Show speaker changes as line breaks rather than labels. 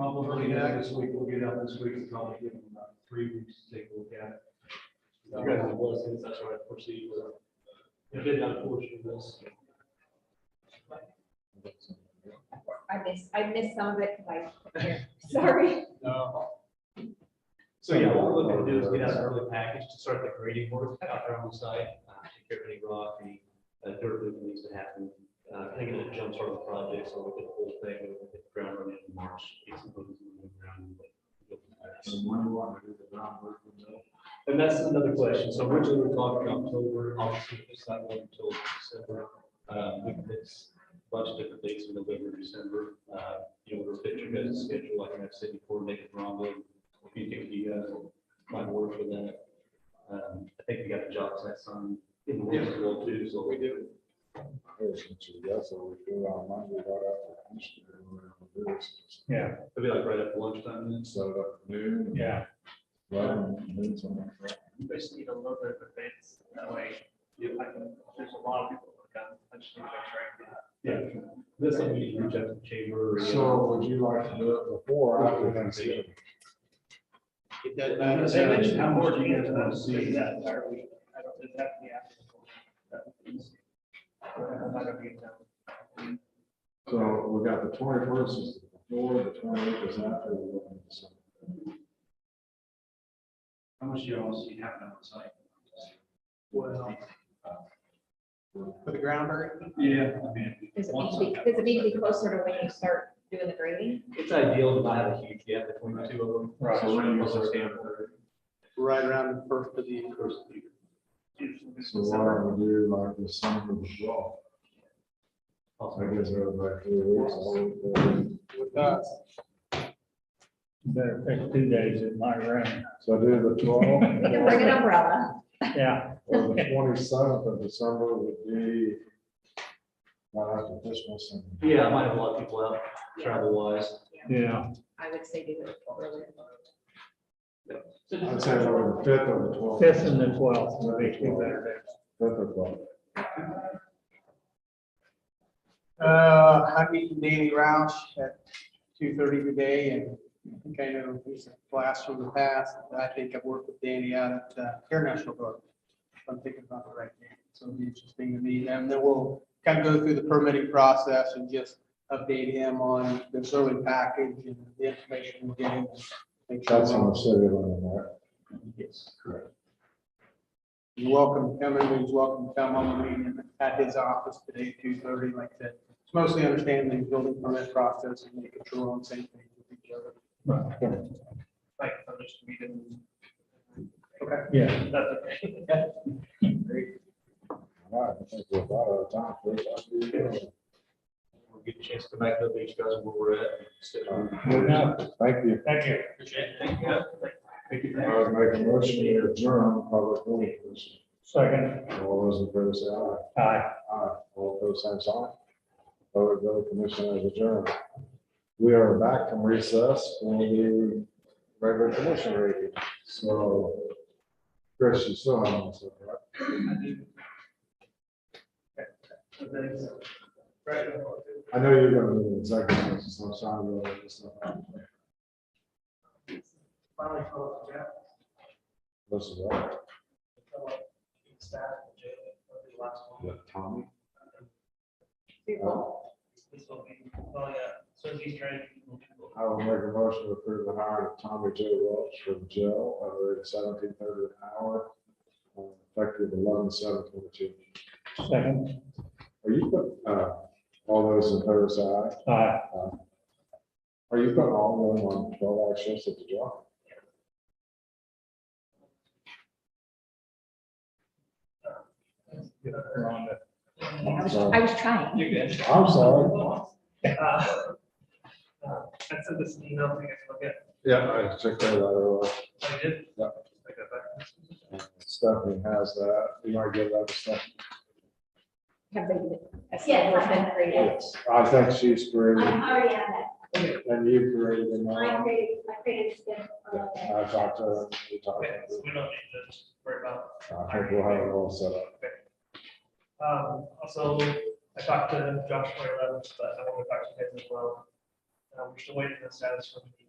Probably not this week, we'll get up this week, and probably give them about three weeks to take a look at it. You guys have blessings, that's what I foresee, but uh, if they not fortunate, this.
I missed, I missed some of it, like, here. sorry.
No. So yeah, what we're looking to do is get out an early package to start the grading work out there on the site, uh, take care of any rock, any uh, dirt that needs to happen. Uh, I think it'll jumpstart the project, so we'll get the whole thing, we'll get the ground running in March. get some things moving around, but we'll get that. And that's another question. So originally we we're talking October, obviously it's not going until December. Uh, we fixed a bunch of different dates in November, December. Uh, you know, we're fixing guys' schedule, I can have city coordinated Rondo. If you think you guys might work for that. Um, I think we got the job set on in Wilsonville too, so. We do. Yeah. It'll be like right after lunchtime then.
Yeah.
You just need a little bit of advance, that way, you, I can, there's a lot of people that come, I just need to track that.
Yeah. That's something you can reach out to the chamber. or, you know,
So would you like to do it before or after Thanksgiving?
that- I was gonna say,
They mentioned
how much do you guys
people
wanna
that
see?
do That entire week, I don't, it have to be after. the fourth. That would be easy. I'm not gonna be in town.
So we got the twenty first is before, the twenty eighth is after.
How much do you all see happening on site?
Well.
For the ground bird?
Yeah, I mean.
Does it need to be, does it need to be closer to when you start doing the grading?
It's ideal to not have a huge gap between the two of them.
Right.
So when you also stand for-
Right around the first of the year.
So what I would do like the summer of the law. I
also-
guess everybody three weeks. I would-
With us.
Better pick two days in my room.
So do the twelve.
You can bring an umbrella.
Yeah,
Well, the twenty seventh of December would be. Not after Christmas and.
Yeah, I might have a lot of people out travel wise.
yeah.
I would say do it earlier.
I'd say the fifth or the twelfth.
Fifth and the twelfth would be two better
Fifth or twelfth.
Uh, I meet Danny Roush at two thirty today and I think I know he's a blast from the past. I think I've worked with Danny out at uh, Air National Guard. if I'm thinking about the right name. So it'll be interesting to meet him. Then we'll kind of go through the permitting process and just update him on the survey package and the information we're getting. Make sure
That's on the city limit, right?
Yes.
You're welcome to come in, he's welcome to come home and meet him at his office today, two thirty, like I said. It's mostly understanding the building permit process and making sure we're on the same page with each other.
Like, I'm just meeting.
Okay.
Yeah.
That's okay.
All right, I think we're about out of time.
We'll get a chance to back up these guys where we're at. Sit down.
Good enough. Thank you.
Thank you.
Appreciate it. Thank you. Thank you.
I would make a motion to adjourn public meetings.
Second,
All those in favor say aye.
aye.
Aye. All opposed, same sign. Public vote commission is adjourned. We are back from recess for the regular commission meeting. So Chris, you still on this, right?
Right.
I know you're gonna be in executive session, so I'm sorry. but it's not-
Finally, close, yeah.
This is all.
Staff, jail, the last one.
Yeah, Tommy. Uh,
This will be, oh, yeah, so he's trying. to-
I will make a motion to approve the hiring of Tommy J. Welch from jail at a rate of seventeen thirty an hour. uh, Effective eleven seven twenty-two.
Second,
Are you, put- uh, all those in favor say aye? Uh,
aye.
Are you putting all of them on twelve hour shifts at the job?
We're on to-
I
I'm
was,
sorry.
I was trying.
You're good.
I'm sorry.
Uh, uh, I sent this email, I guess, look at,
Yeah, I checked that out.
I did.
Yeah.
I got back.
Stephanie has that. You might give that to Stephanie.
Have they, that's
Yes, I
been
have.
graded.
Yes, I think she's created
I'm already on that.
and you created them.
I
all.
created, I created them.
Yeah, I talked to her. we talked to
Okay,
her.
so we don't need to worry about.
I think we'll have it all set up.
Um, also, I talked to Josh Moylan, but I want to talk to him as well. Uh, we're still waiting for the status from the